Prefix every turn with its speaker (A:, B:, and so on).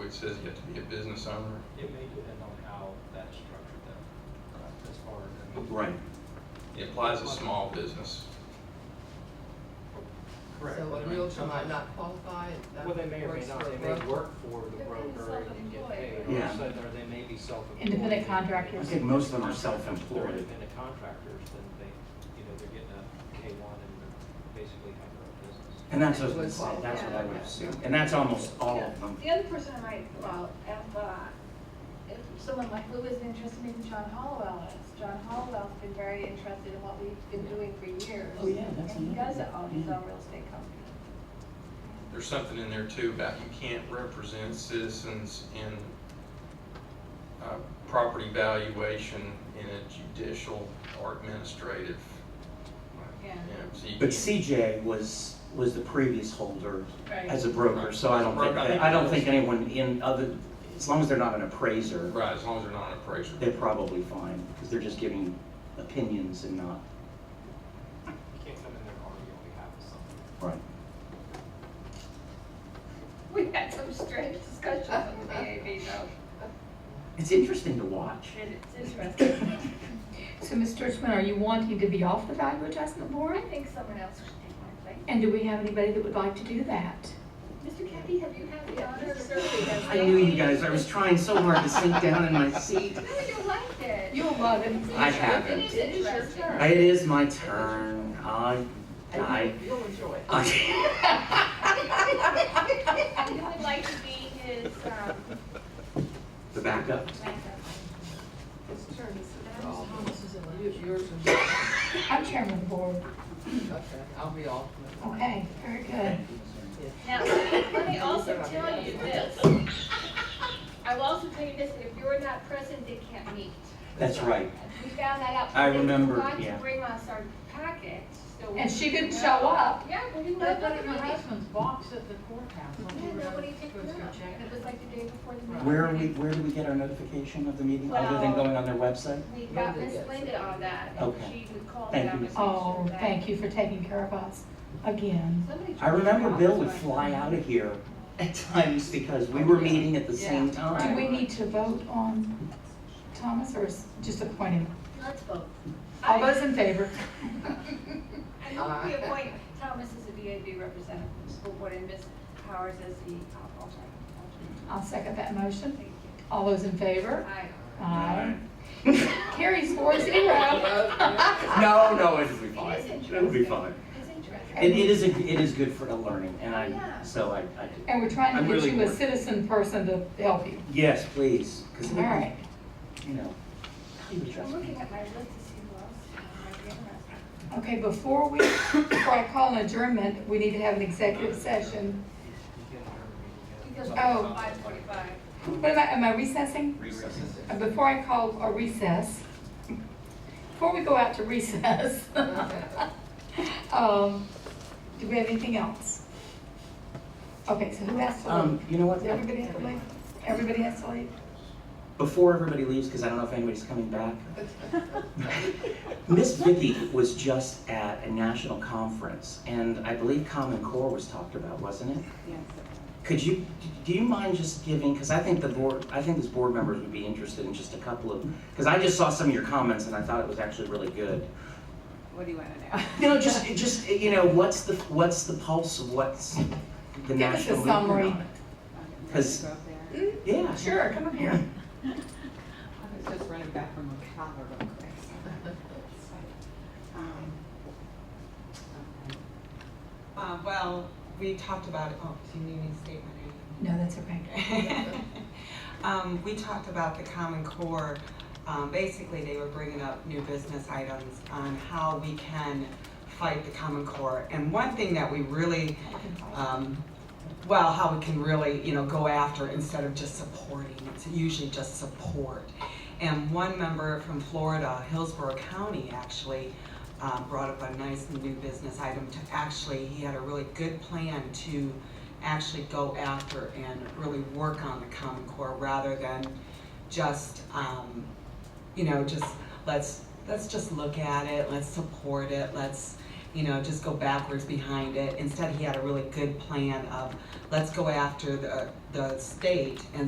A: it says you have to be a business owner.
B: It may depend on how that's structured though, uh, as far as, I mean.
C: Right.
A: It applies to small business.
B: Correct.
D: So
B: but I
D: a
B: mean,
D: realtor might
B: sometimes-
D: not qualify, that
B: Well, they may or may
D: works
B: not,
D: for a
B: they may
D: broker.
B: work for the
E: They're being
B: broker and get paid,
E: self-employed.
B: or
C: Yeah.
B: so, or they may be self-employed.
F: Independent
C: I
F: contractors.
C: think most of them are
B: If they're
C: self-employed.
B: independent contractors, then they, you know, they're getting a K one and they're basically have their own business.
C: And that's what,
D: Was-
C: that's what I would assume. And that's almost all of them.
E: The other person I might, well, if, uh, if someone like Lou is interested in John Hollowell is, John Hollowell's been very interested in what we've been doing for years.
C: Oh, yeah, that's
E: And he
C: another
E: does
C: one,
E: own his
C: yeah.
E: own real estate company.
A: There's something in there too about you can't represent citizens in uh, property valuation in a judicial or administrative.
E: Yeah.
A: you know, so you
C: But
A: can't-
C: CJ was, was the previous holder as a broker, so I don't think,
A: Broker, I think
C: that- I don't
A: it
C: think
A: was.
C: anyone in other, as long as they're not an appraiser,
A: Right, as long as they're not an appraiser.
C: they're probably fine, because they're just giving opinions and not.
B: You can't come in there and argue on behalf of someone.
C: Right.
E: We had some strange discussions with the AAB though.
C: It's interesting to watch.
E: It- It's interesting.
F: So, Ms. Churchman, are you wanting to be off the value adjustment
E: I
F: board?
E: think someone else should take my place.
F: And do we have anybody that would like to do that?
E: Mr. Kathy, have you had the honor of serving as?
C: I knew you guys, I was trying so hard to sink down in my seat.
E: No, you liked it.
F: You'll love it.
C: I haven't.
E: It is interesting.
C: It is my turn. I, I,
D: And you- You'll enjoy it.
C: I,
E: You would like to be his, um,
C: the backup.
D: It's turned to sit
E: That
D: down.
E: was
D: You- um, Yours is, okay,
F: I'm chairman of the board.
D: I'll be off.
F: Okay, very good.
E: Now, let me also tell you this. I will also tell you this, if you're not present, they can't meet.
C: That's right.
E: We found that out.
C: I remember,
E: We forgot
C: yeah.
E: to bring us our packet, so. we
F: And she
E: didn't
F: didn't show
E: know.
F: up.
E: Yeah, we didn't know.
G: They put it in my husband's box at the courthouse.
E: Yeah, nobody picked
G: Supposed
E: it
G: to go
E: up.
G: check it.
E: It was like the day before the meeting.
C: Where are we, where do we get our notification of the meeting, other than going on their website?
E: We got Miss Linda on that, and
C: Okay.
E: she would call
C: Thank
E: down
C: you.
E: and make sure
F: Oh,
E: that.
F: thank you for taking care of us again.
E: Somebody
C: I remember
E: tried to
C: Bill would
E: call us,
C: fly out of here at times because we were meeting at the same
F: Do
C: time.
F: we need to vote on Thomas or is just appoint him?
E: but Let's vote.
F: All
E: I-
F: those in favor?
E: I move we appoint Thomas as a VAB representative of the school board and Ms. Powers as the uh, alternate.
F: I'll second that motion.
E: Thank you.
F: All those in favor?
E: Aye.
F: Aye. Carries four zero.
C: No, Oh, no, it'll be fine.
E: It is
C: It'll be
E: interesting.
C: fine.
E: It's interesting.
C: It, it is, a- it is good for a learning, and
E: Yeah.
C: I, so I, I,
F: And we're trying
C: I'm
F: to
C: really
F: get you a
C: bored.
F: citizen person to help you.
C: yes, please, because,
F: All right.
C: you know, you would trust
E: I'm
C: me.
E: looking at my list to see who else might be interested.
F: Okay, before we, before I call an adjournment, we need to have an executive session.
B: You can argue, you can-
E: Because
F: Oh.
E: five forty-five.
F: What am I, am I recessing? Uh, Before I call a recess, before we go out to recess, um, do we have anything else? Okay, so who has to
C: Um,
F: leave?
C: you know what?
F: Does everybody have to leave? Everybody has to leave?
C: Before everybody leaves, because I don't know if anybody's coming back, Miss Vicky was just at a national conference, and I believe Common Core was talked about, wasn't it? Could you, do you mind just giving, because I think the board, I think these board members would be interested in just a couple of, because I just saw some of your comments and I thought it was actually really good.
H: What do you want to know?
C: You know, just, just, you know, what's the, what's the pulse of what's the
F: Give us a
C: national movement
F: summary.
C: on it? 'Cause-
H: Go up there.
F: Hmm?
C: Yeah, sure.
F: Sure, come up here.
H: I was just running back from a cava real quick. Um, okay. Uh, well, we talked about, oh, do you need me to state my name?
F: No, that's okay.
H: Um, we talked about the Common Core, um, basically they were bringing up new business items on how we can fight the Common Core. And one thing that we really,
C: Uh,
H: um, well, how we can really, you know, go after instead of just supporting, it's usually just support. And one member from Florida, Hillsborough County actually, um, brought up a nice new business item to actually, he had a really good plan to actually go after and really work on the Common Core rather than just, um, you know, just let's, let's just look at it, let's support it, let's, you know, just go backwards behind it. Instead, he had a really good plan of, let's go after the, the state and